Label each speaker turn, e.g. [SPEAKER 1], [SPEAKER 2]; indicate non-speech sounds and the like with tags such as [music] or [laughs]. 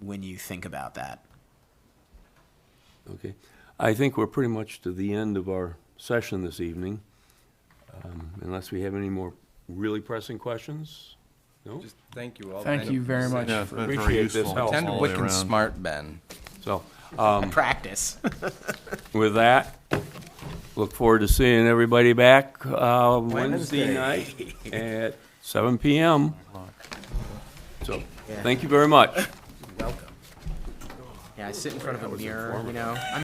[SPEAKER 1] when you think about that.
[SPEAKER 2] Okay. I think we're pretty much to the end of our session this evening, um, unless we have any more really pressing questions? No?
[SPEAKER 3] Just thank you all.
[SPEAKER 4] Thank you very much.
[SPEAKER 5] Yeah, it's been very
[SPEAKER 2] Appreciate this
[SPEAKER 5] useful.
[SPEAKER 2] help.
[SPEAKER 3] Attend
[SPEAKER 5] all the way
[SPEAKER 3] Wiccan
[SPEAKER 5] around.
[SPEAKER 3] Smart, Ben.
[SPEAKER 2] So,
[SPEAKER 1] Um, [laughs] Practice.
[SPEAKER 2] with that, look forward to seeing everybody back uh, Wednesday night at seven PM. So, thank you very much.
[SPEAKER 1] Yeah, I sit in front of a mirror, you know. I'm